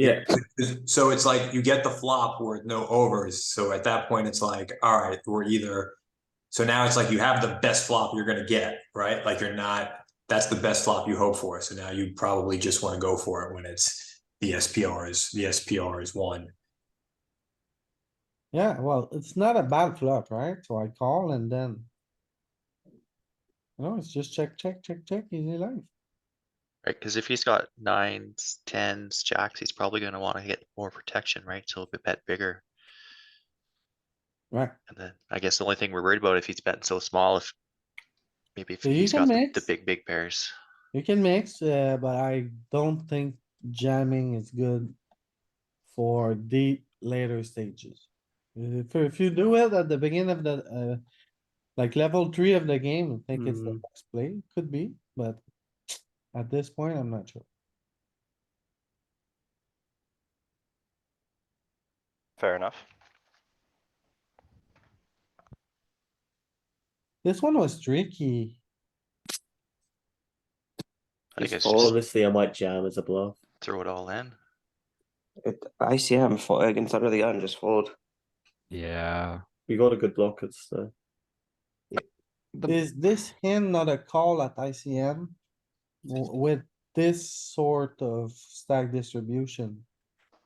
Yeah, So it's like you get the flop with no overs. So at that point, it's like, all right, we're either. So now it's like you have the best flop you're gonna get, right? Like you're not, that's the best flop you hope for. So now you probably just want to go for it when it's the SPR is, the SPR is one. Yeah, well, it's not a bad flop, right? So I call and then. No, it's just check, check, check, check, easy life. Right, because if he's got nines, tens, jacks, he's probably gonna wanna get more protection, right? So he'll bet bigger. Right, And then I guess the only thing we're worried about if he's betting so small, if maybe if So you he's can got the, the mix. big, big pairs. you can mix, uh, but I don't think jamming is good for the later stages. If, if you do it at the beginning of the, uh, like level three of the game, I think it's the best play, could be, but at this point, I'm not sure. Fair enough. This one was tricky. I think it's just Honestly, I might jam as a bluff. throw it all in. It, ICM fought against under the gun just fold. Yeah. We got a good block. It's the Is this hand not a call at ICM? W- With this sort of stack distribution?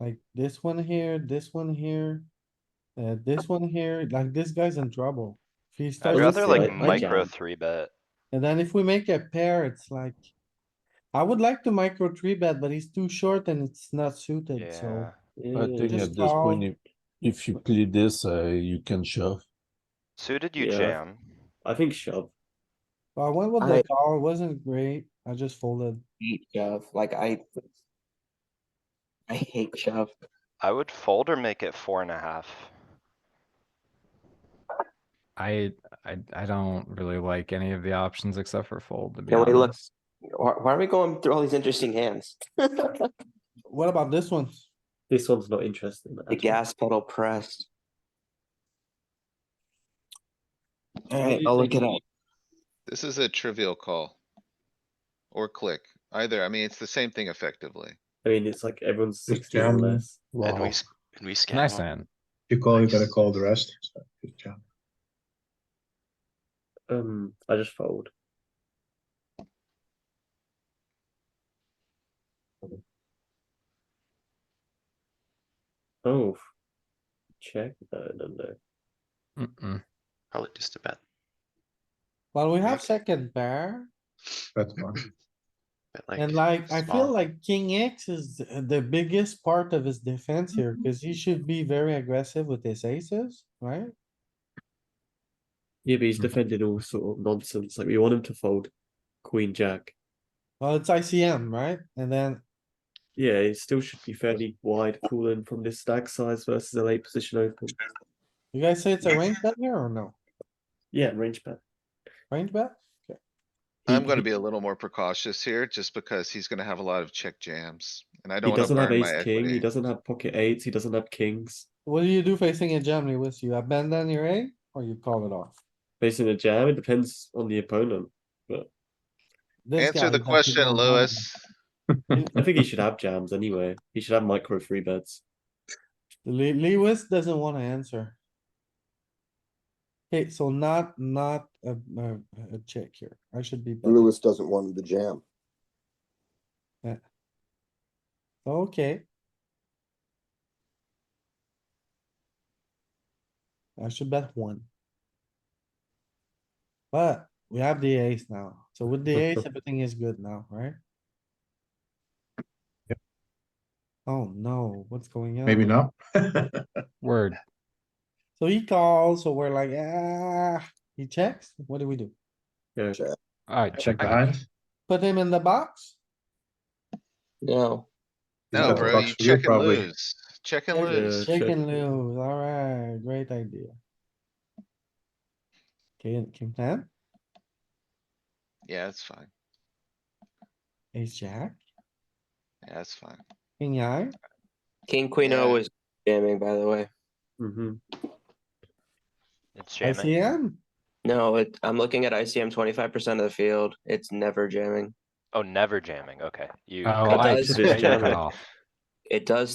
Like this one here, this one here, uh, this one here, like this guy's in trouble. If he I'd starts, would rather say like I- I micro jam. three bet. and then if we make a pair, it's like. I would like to micro three bet, but he's too short and it's not suited, so. Yeah, I think just at this point, call. if, if you play this, uh, you can shove. suited you Yeah. jam. I think shove. But I went with the I- call, wasn't great, I just folded. Hate shove. Like I, I hate shove. I would fold or make it four and a half. I, I, I don't really like any of the options except for fold, to be Can we look- honest. Why, why are we going through all these interesting hands? the What about this one? This one's not interesting. at all. gas pedal pressed. All What right, do you I'll look think? it up. This is a trivial call. Or click, either. I mean, it's the same thing effectively. I mean, it's like everyone's Just sixteen or jam. less. And we, Wow, s- and we scan. nice him. hand. You call, you gotta Nice. call the rest. so Good job. Um, I just fold. Oh, check. No, no, no. Mm-mm. Probably just a bet, Well, we have Nice. second pair. That's fine. bet like. And like, I feel small. like king X is th- the biggest part of his defense here, Mm-hmm. cause he should be very aggressive with his aces, right? Yeah, but he's Hmm. defending all sort of nonsense. Like we want him to fold queen jack. Well, it's ICM, right? And then, Yeah, it still should be fairly wide cooling from this stack size versus a late position open. you guys say it's a range bet here or no? Yeah, range bet. Range bet? I'm gonna be a little more precautious here just because he's gonna have a lot of check jams and I He don't wanna doesn't have burn my ace king. He equity. doesn't have pocket eights. He doesn't have kings. What do you do facing a jam, Lewis? You abandon your A or you call it off? Facing a jam, it depends on the opponent. This guy Answer the is actually question, going Louis. I think he should have jams anyway. He should have micro free bets. down. Le- Lewis doesn't wanna answer. Okay, so not, not a, a, a check here. I should be. betting. Lewis doesn't want him to jam. Okay. I should bet one. But we have the ace now, so with the ace, everything is good now, right? Oh no, what's going on? Maybe not. Word. So he calls, so we're like, ah, he checks, what do we do? Yeah, Check. Alright, check back. Behind. Put him in the box? No, No, That's bro, bucks you for you, check and probably. lose. Check and Yeah, lose. check. Shake and lose, alright, great idea. Okay, king ten, Yeah, it's fine. ace jack, Yeah, it's fine. king high. King Queen Yeah. O is jamming. By the way, Mm-hmm. It's jamming. ICM, no, it, I'm looking at ICM. Twenty five percent of the field. It's never jamming. Oh, never jamming. Okay, you. Oh, cut I, does. yeah, you cut off. it does